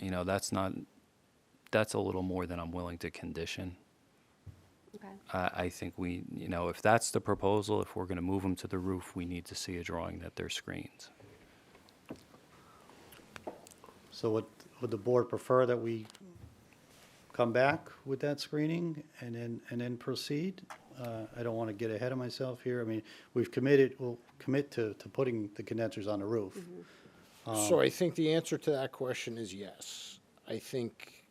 you know, that's not, that's a little more than I'm willing to condition. Okay. I, I think we, you know, if that's the proposal, if we're going to move them to the roof, we need to see a drawing that they're screens. So would, would the board prefer that we come back with that screening and then, and then proceed? Uh, I don't want to get ahead of myself here. I mean, we've committed, we'll commit to, to putting the condensers on the roof. So I think the answer to that question is yes. I think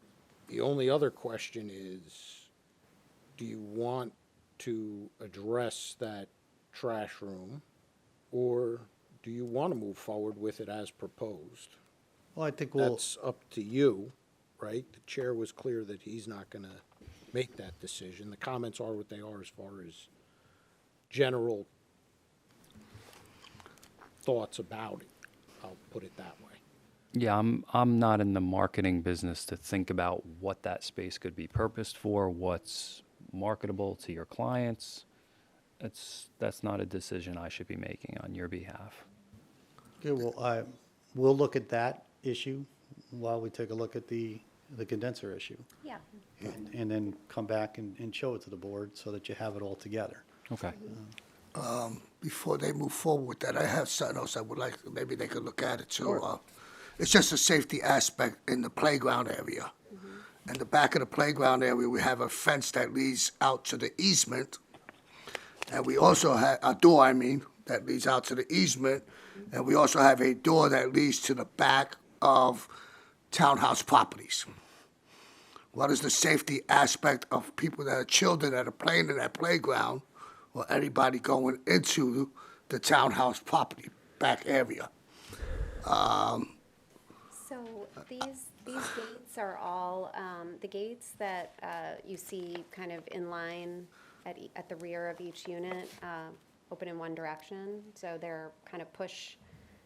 the only other question is, do you want to address that trash room? Or do you want to move forward with it as proposed? Well, I think we'll, That's up to you, right? The chair was clear that he's not going to make that decision. The comments are what they are as far as general thoughts about it. I'll put it that way. Yeah, I'm, I'm not in the marketing business to think about what that space could be purposed for, what's marketable to your clients. It's, that's not a decision I should be making on your behalf. okay, well, I, we'll look at that issue while we take a look at the, the condenser issue. Yeah. And and then come back and, and show it to the board so that you have it all together. Okay. before they move forward with that, I have something else I would like, maybe they could look at it too. Uh, It's just a safety aspect in the playground area. In the back of the playground area, we have a fence that leads out to the easement. And we also have, a door, I mean, that leads out to the easement. And we also have a door that leads to the back of townhouse properties. What is the safety aspect of people that are children that are playing in that playground or anybody going into the townhouse property back area? So these, these gates are all, um, the gates that, uh, you see kind of in line at, e- at the rear of each unit, uh, open in one direction. So they're kind of push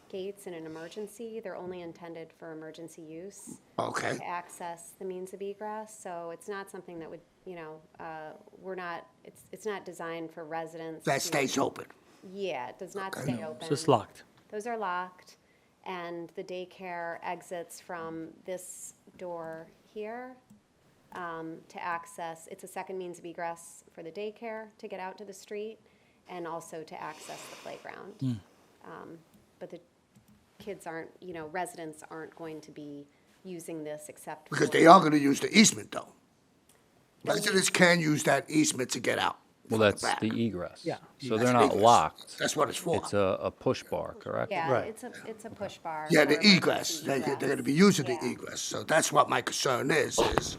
gates in an emergency. They're only intended for emergency use. Okay. To access the means of egress, so it's not something that would, you know, uh, we're not, it's, it's not designed for residents. That to- stays open. Yeah, it does not stay open. So it's locked. Those are locked, and the daycare exits from this door here um, to access, it's a second means of egress for the daycare to get out to the street and also to access the playground. Hmm. Um, But the kids aren't, you know, residents aren't going to be using this except. Because for- they are gonna use the easement though. Residents can use that easement to get out. Well, from the that's back. the egress. Yeah. So That's they're not egress. locked. That's what it's for. It's a, a push bar, correct? Yeah, Right. it's a, it's a push bar. Yeah, the for egress, emergency they, they're gonna be egress. using the Yeah. egress, so that's what my concern is, is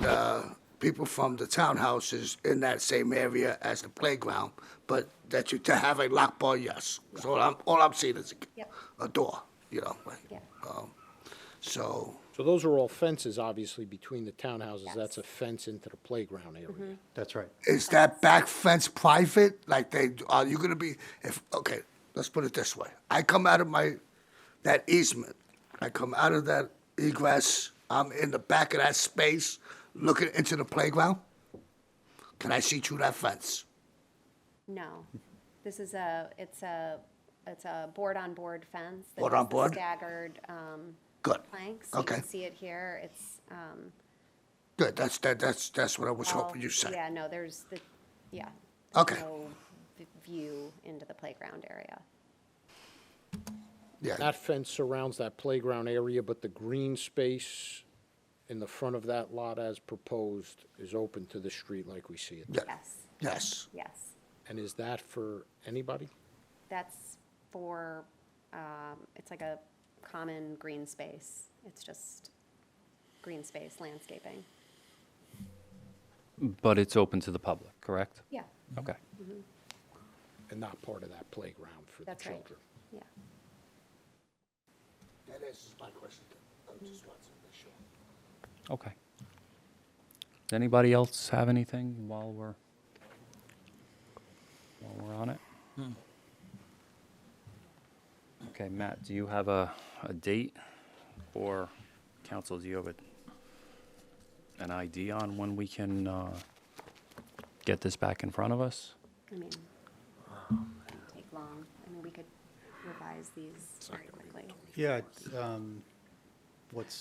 the people from the townhouses in that same area as the playground, but that you, to have a lock bar, yes. So all I'm, all I'm seeing is a- Yep. a door, you know, like, Yeah. um, so, So those are all fences, obviously, between the townhouses. That's a fence into the playground Mm-hmm. area. That's right. is that back fence private? Like they, are you gonna be, if, okay, let's put it this way. I come out of my, that easement, I come out of that egress, I'm in the back of that space, looking into the playground. Can I see through that fence? No, this is a, it's a, it's a board-on-board fence. that Board has on the board? Staggered um, Good. planks. You Okay, can see it here, it's. um, good, that's, that, that's, that's what I was all- hoping you said. Yeah, no, there's the, yeah. there's Okay. No v- view into the playground area. Yeah, That fence surrounds that playground area, but the green space in the front of that lot as proposed is open to the street like we see it. yeah, Yes, yes, yes. And is that for anybody? That's for, um, it's like a common green space. It's just green space landscaping. But it's open to the public, correct? Yeah, Okay. And not part of that playground for the that's right. children? Yeah. That answers my question. I just wanted to make sure. Okay. Does anybody else have anything while we're, while we're on it? Okay, Matt, do you have a, a date? Or, council, do you have a, an idea on when we can, uh, get this back in front of us? I mean, doesn't take long. I mean, we could revise these very quickly. Yeah, it's, um, what's